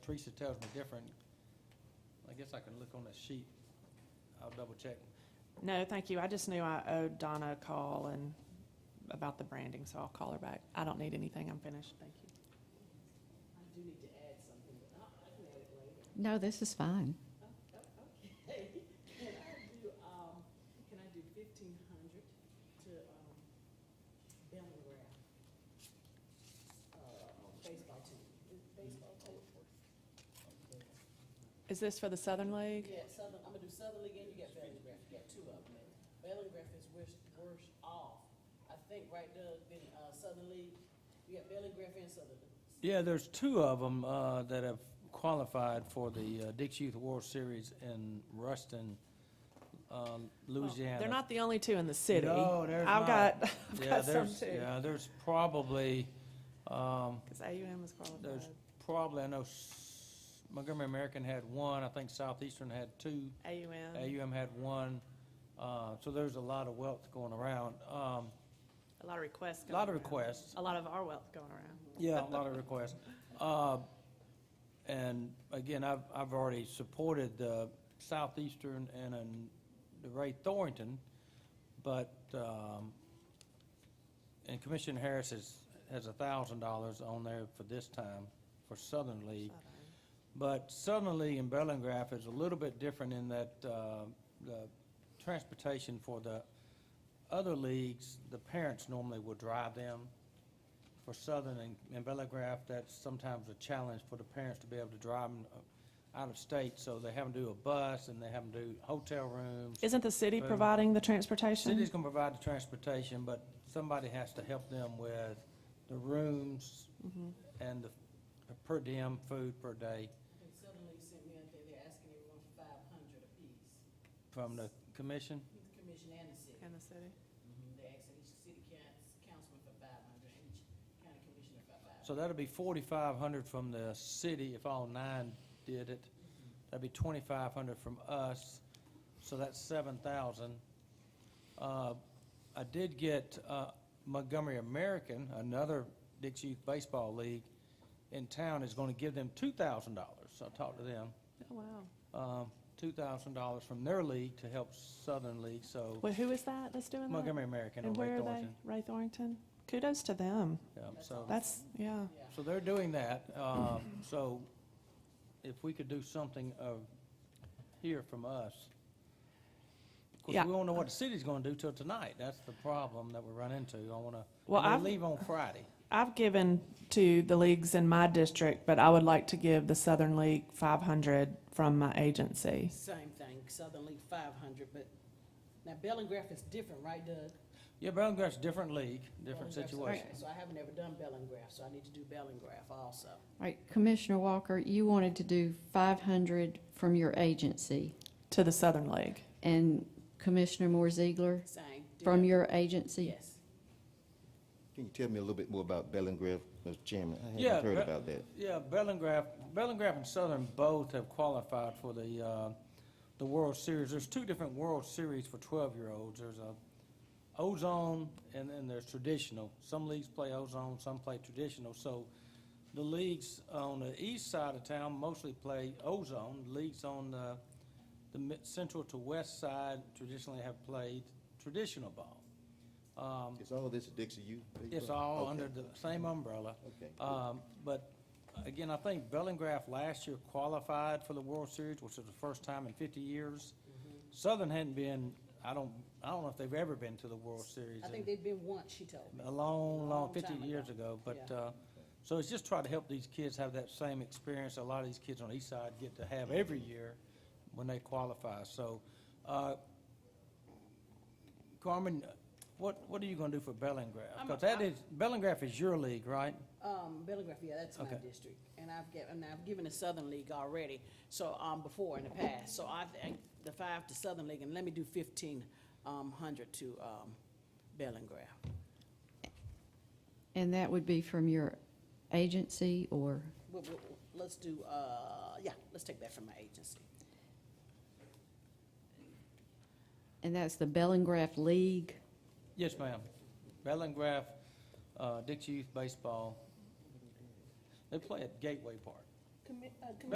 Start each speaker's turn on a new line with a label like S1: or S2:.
S1: Teresa tells me different. I guess I can look on that sheet. I'll double check.
S2: No, thank you. I just knew I owed Donna a call and about the branding, so I'll call her back. I don't need anything. I'm finished. Thank you.
S3: I do need to add something, but I, I can add it later.
S4: No, this is fine.
S3: Oh, oh, Okay, can I do, um, can I do fifteen hundred to, um, Bama Rare? Uh, baseball team, Is baseball team.
S2: Is this for the Southern League?
S3: Yeah, Southern, I'm gonna do Southern League and you got Valley Graph, you got two of them. Valley Graph is worse, worse off, I think, right, Doug, than, uh, Southern League. You got Valley Graph and Southern League.
S1: Yeah, there's two of them uh, that have qualified for the uh, Dix Youth World Series in Ruston, uh, Louisiana.
S2: They're not the only two in the city.
S1: No, there's
S2: I've
S1: not.
S2: got, I've
S1: Yeah,
S2: got some
S1: there's-
S2: too.
S1: Yeah, there's probably, um,
S2: Because AUM was
S1: there's
S2: qualified.
S1: probably, I know S- Montgomery American had one, I think Southeastern had two.
S2: AUM,
S1: AUM had one, uh, so there's a lot of wealth going around. Um,
S2: a lot of requests going
S1: Lot of
S2: around.
S1: requests.
S2: A lot of our wealth going around.
S1: Yeah, a lot of requests. Uh, And again, I've, I've already supported the Southeastern and um, the Ray Thornton, but, um, and Commissioner Harris has, has a thousand dollars on there for this time, for Southern League. But Southern League and Bellingraph is a little bit different in that uh, the transportation for the other leagues, the parents normally will drive them. For Southern and and Bellingraph, that's sometimes a challenge for the parents to be able to drive them uh, out of state, so they have them do a bus and they have them do hotel rooms.
S2: Isn't the city
S1: Boom.
S2: providing the transportation?
S1: City's gonna provide the transportation, but somebody has to help them with the rooms
S2: Mm-hmm.
S1: and the per diem food per day
S3: And suddenly sent me out there, they're asking everyone for five hundred apiece,
S1: from the commission.
S3: the commission and the city.
S2: In the city.
S3: Mm-hmm. They're asking each city counts- councilman for five hundred, and each county commissioner for five
S1: So that'll
S3: hundred.
S1: be forty-five hundred from the city if all nine did it. That'd be twenty-five hundred from us, so that's seven thousand. Uh, I did get uh, Montgomery American, another Dix Youth Baseball League in town, is gonna give them two thousand dollars. I talked to them.
S2: Oh, wow.
S1: um, $2,000 from their league to help Southern League, so
S2: Well, who is that that's doing that?
S1: Montgomery American on
S2: And
S1: Lake
S2: where are they?
S1: Thornton.
S2: Ray Thornton? Kudos to them.
S1: Yeah, So,
S2: That's, yeah.
S3: Yeah.
S1: so they're doing that. um, So if we could do something of, hear from us. Of course,
S2: Yeah.
S1: we don't know what the city's going to do till tonight. That's the problem that we run into. I want to,
S2: Well,
S1: I
S2: I've-
S1: leave on Friday.
S2: I've given to the leagues in my district, but I would like to give the Southern League 500 from my agency.
S3: Same thing, Southern League five hundred, but now Bellingraph is different, right, Doug?
S1: Yeah, Bellingraph's a different league, different
S3: Bellingraph's-
S1: situation.
S3: okay, So I haven't ever done Bellingraph, so I need to do Bellingraph also.
S4: All right, Commissioner Walker, you wanted to do 500 from your agency,
S2: To the Southern League.
S4: and Commissioner Moore Ziegler
S3: Same. deal.
S4: from your agency?
S3: Yes.
S5: Can you tell me a little bit more about Bellingraph, Mr. Chairman? I
S1: Yeah,
S5: haven't heard
S1: Be-
S5: about that.
S1: Yeah, Bellingraph, Bellingraph and Southern both have qualified for the, uh, the World Series. There's two different World Series for twelve-year-olds. There's a ozone and then there's traditional. Some leagues play ozone, some play traditional. So the leagues on the east side of town mostly play ozone. Leagues on the, the mi- central to west side traditionally have played traditional ball. Um,
S5: Is all this Dixie U?
S1: it's all
S5: Okay.
S1: under the same umbrella.
S5: Okay.
S1: Um, But again, I think Bellingraph last year qualified for the World Series, which was the first time in 50 years.
S3: Mm-hmm.
S1: Southern hadn't been, I don't, I don't know if they've ever been to the World Series.
S3: I
S1: in-
S3: think they've been once, she told me.
S1: a long, long,
S3: Long
S1: 50
S3: time
S1: years
S3: ago.
S1: ago, but,
S3: Yeah.
S1: uh, so it's just try to help these kids have that same experience a lot of these kids on the east side get to have every
S3: Mm-hmm.
S1: year when they qualify, so, uh, Carmen, what, what are you gonna do for Bellingraph?
S3: I'm-
S1: Because that
S3: I'm-
S1: is, Bellingraph is your league, right?
S3: Um, Bellingraph, yeah, that's my
S1: Okay.
S3: district, and I've given, and I've given the Southern League already, so, um, before in the past, so I think the five to Southern League, and let me do fifteen, um, hundred to, um, Bellingraph.
S4: And that would be from your agency or,
S3: Well, well, well, let's do, uh, yeah, let's take that from my agency.
S4: and that's the Bellingraph League?
S1: Yes, ma'am. Bellingraph, uh, Dixie Youth Baseball, they play at Gateway Park.
S3: Can commi- uh, committee